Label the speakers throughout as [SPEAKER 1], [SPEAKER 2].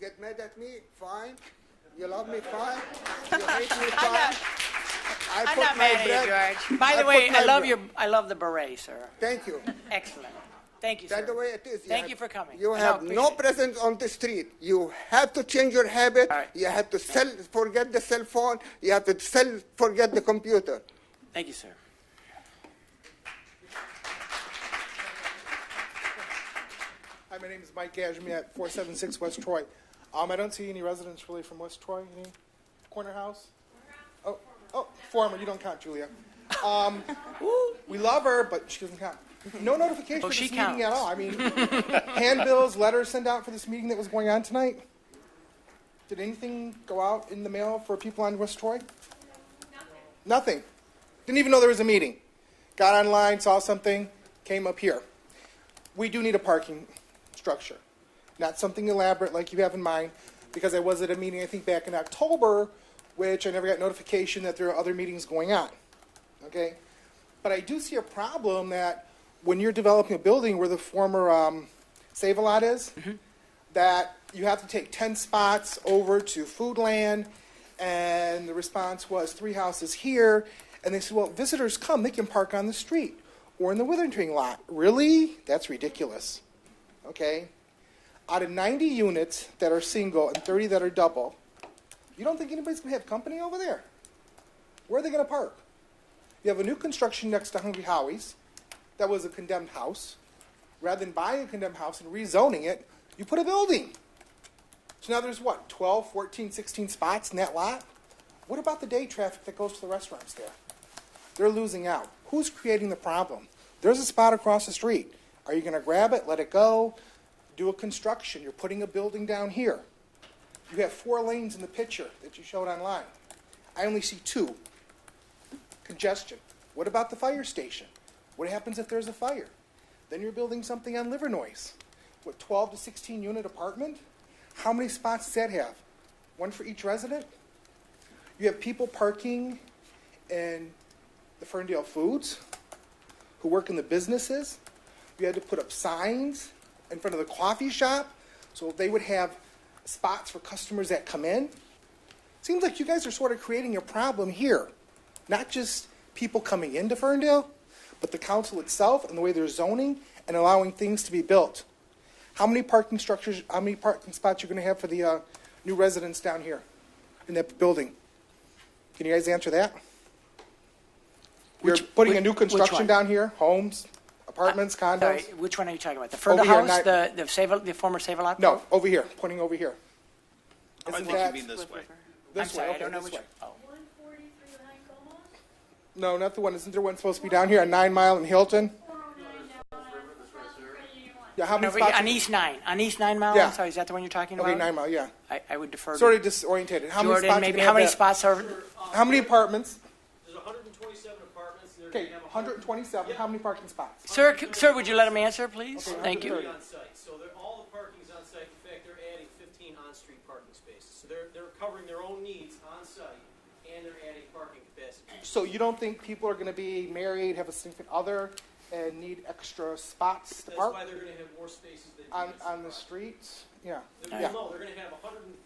[SPEAKER 1] get mad at me, fine. You love me, fine. You hate me, fine. I
[SPEAKER 2] I'm
[SPEAKER 1] put
[SPEAKER 2] not
[SPEAKER 1] my
[SPEAKER 2] mad
[SPEAKER 1] bread-
[SPEAKER 2] at you, George. By
[SPEAKER 1] I
[SPEAKER 2] the way,
[SPEAKER 1] put my
[SPEAKER 2] I love
[SPEAKER 1] bread-
[SPEAKER 2] your, I love the beret, sir.
[SPEAKER 1] Thank you.
[SPEAKER 2] Excellent. Thank you, sir.
[SPEAKER 1] That's the way it is.
[SPEAKER 2] Thank
[SPEAKER 1] have-
[SPEAKER 2] you for coming.
[SPEAKER 1] You
[SPEAKER 2] I
[SPEAKER 1] have no
[SPEAKER 2] appreciate it.
[SPEAKER 1] presence on the street. You have to change your habit.
[SPEAKER 2] All right.
[SPEAKER 1] You have to sell, forget the cell phone. You have to sell, forget the computer.
[SPEAKER 2] Thank you, sir.
[SPEAKER 3] Hi, my name is Mike Gashmi at 476 West Troy. Um, I don't see any residents really from West Troy. Any corner house? Oh, oh, former. You don't count, Julia. Um, we love her, but she doesn't count. No notification
[SPEAKER 2] Oh,
[SPEAKER 3] for this
[SPEAKER 2] she
[SPEAKER 3] meeting at
[SPEAKER 2] counts.
[SPEAKER 3] all. I mean, handbills, letters sent out for this meeting that was going on tonight. Did anything go out in the mail for people on West Troy? Nothing. Didn't even know there was a meeting. Got online, saw something, came up here. We do need a parking structure, not something elaborate like you have in mind, because I was at a meeting, I think, back in October, which I never got notification that there are other meetings going on. Okay? But I do see a problem that when you're developing a building where the former um, Save a Lot is, that you have to take 10 spots over to Foodland. And the response was three houses here. And they said, well, visitors come, they can park on the street or in the withering lot. Really? That's ridiculous. Okay? Out of 90 units that are single and 30 that are double, you don't think anybody's going to have company over there? Where are they going to park? You have a new construction next to Hungry Howie's that was a condemned house. Rather than buying a condemned house and rezoning it, you put a building. So now there's what, 12, 14, 16 spots in that lot? What about the day traffic that goes to the restaurants there? They're losing out. Who's creating the problem? There's a spot across the street. Are you going to grab it, let it go, do a construction? You're putting a building down here. You have four lanes in the picture that you showed online. I only see two congestion. What about the fire station? What happens if there's a fire? Then you're building something on liver noise. What, 12 to 16 unit apartment? How many spots does that have? One for each resident? You have people parking in the Ferndale Foods who work in the businesses. You had to put up signs in front of the coffee shop so they would have spots for customers that come in. Seems like you guys are sort of creating a problem here. Not just people coming into Ferndale, but the council itself and the way they're zoning and allowing things to be built. How many parking structures, how many parking spots you're going to have for the uh, new residents down here in that building? Can you guys answer that? You're
[SPEAKER 2] Which-
[SPEAKER 3] putting
[SPEAKER 2] which-
[SPEAKER 3] a new
[SPEAKER 2] which
[SPEAKER 3] construction
[SPEAKER 2] one?
[SPEAKER 3] down here, homes, apartments,
[SPEAKER 2] Uh, Sorry,
[SPEAKER 3] condos?
[SPEAKER 2] which one are you talking about? The Ferndale
[SPEAKER 3] Over here,
[SPEAKER 2] House,
[SPEAKER 3] not-
[SPEAKER 2] the, the Save, the former Save-A-Lot?
[SPEAKER 3] No, over here, pointing over here.
[SPEAKER 4] I
[SPEAKER 3] Isn't
[SPEAKER 4] think you
[SPEAKER 3] that-
[SPEAKER 4] mean this way.
[SPEAKER 2] I'm
[SPEAKER 3] This way,
[SPEAKER 2] sorry, I
[SPEAKER 3] okay,
[SPEAKER 2] don't know
[SPEAKER 3] this
[SPEAKER 2] which.
[SPEAKER 3] way.
[SPEAKER 2] oh.
[SPEAKER 5] One forty through High Como,
[SPEAKER 3] No, not the one. Isn't there one supposed to be down here on Nine Mile and Hilton?
[SPEAKER 5] four oh nine down on South Virginia One.
[SPEAKER 3] Yeah, how many
[SPEAKER 2] Over here,
[SPEAKER 3] spots?
[SPEAKER 2] On East Nine, on East Nine Mile?
[SPEAKER 3] Yeah.
[SPEAKER 2] I'm sorry, is that the one you're talking about?
[SPEAKER 3] Okay, Nine Mile, yeah.
[SPEAKER 2] I, I would defer
[SPEAKER 3] Sort
[SPEAKER 2] to
[SPEAKER 3] of disoriented. How many
[SPEAKER 2] Jordan,
[SPEAKER 3] spots?
[SPEAKER 2] maybe.
[SPEAKER 3] can
[SPEAKER 2] How many
[SPEAKER 3] have that-
[SPEAKER 2] spots are,
[SPEAKER 3] How many apartments?
[SPEAKER 6] There's 127 apartments, and they're
[SPEAKER 3] Okay,
[SPEAKER 6] going to have
[SPEAKER 3] 127. How many parking spots?
[SPEAKER 2] sir, c- sir, would you let him answer, please? Thank you.
[SPEAKER 6] 130 on site. So they're, all the parking's on site. In fact, they're adding 15 on-street parking spaces. So they're, they're covering their own needs on site, and they're adding parking capacity.
[SPEAKER 3] So you don't think people are going to be married, have a significant other, and need extra spots to
[SPEAKER 6] That's why
[SPEAKER 3] park
[SPEAKER 6] they're going to have more spaces than
[SPEAKER 3] on,
[SPEAKER 6] units.
[SPEAKER 3] on the streets? Yeah,
[SPEAKER 6] They're-
[SPEAKER 3] yeah.
[SPEAKER 6] No, they're going to have 130,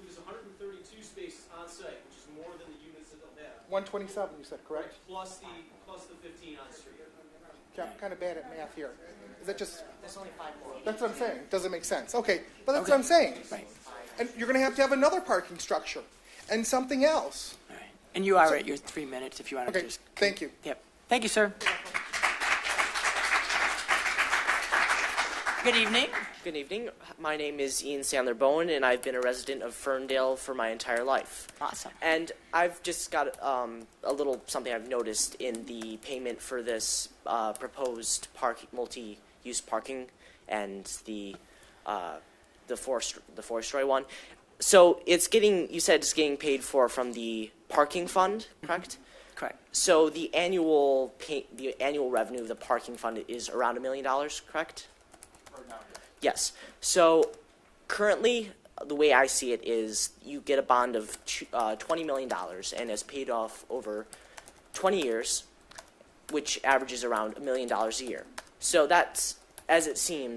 [SPEAKER 6] which is 132 spaces on site, which is more than the units that they'll have.
[SPEAKER 3] 127, you said, correct?
[SPEAKER 6] Plus the, plus the 15 on-street.
[SPEAKER 3] Okay, I'm kind of bad at math here. Is that just? That's only five more. That's what I'm saying. Doesn't make sense. Okay, but that's what I'm saying.
[SPEAKER 2] Right.
[SPEAKER 3] And you're going to have to have another parking structure and something else.
[SPEAKER 2] All right. And you are at your three minutes if you want to
[SPEAKER 3] Okay,
[SPEAKER 2] just.
[SPEAKER 3] thank you.
[SPEAKER 2] Yep. Thank you, sir. Good evening.
[SPEAKER 7] Good evening. My name is Ian Sandler Bowen, and I've been a resident of Ferndale for my entire life.
[SPEAKER 2] Awesome.
[SPEAKER 7] And I've just got um, a little something I've noticed in the payment for this uh, proposed park, multi-use parking and the uh, the four st- the four-story one. So it's getting you said it's getting paid for from the parking fund, correct?
[SPEAKER 2] Correct.
[SPEAKER 7] So the annual pay, the annual revenue of the parking fund is around a million dollars, correct? Yes. So currently, the way I see it is you get a bond of tw- uh, $20 million and it's paid off over 20 years, which averages around a million dollars a year. So that's, as it seems,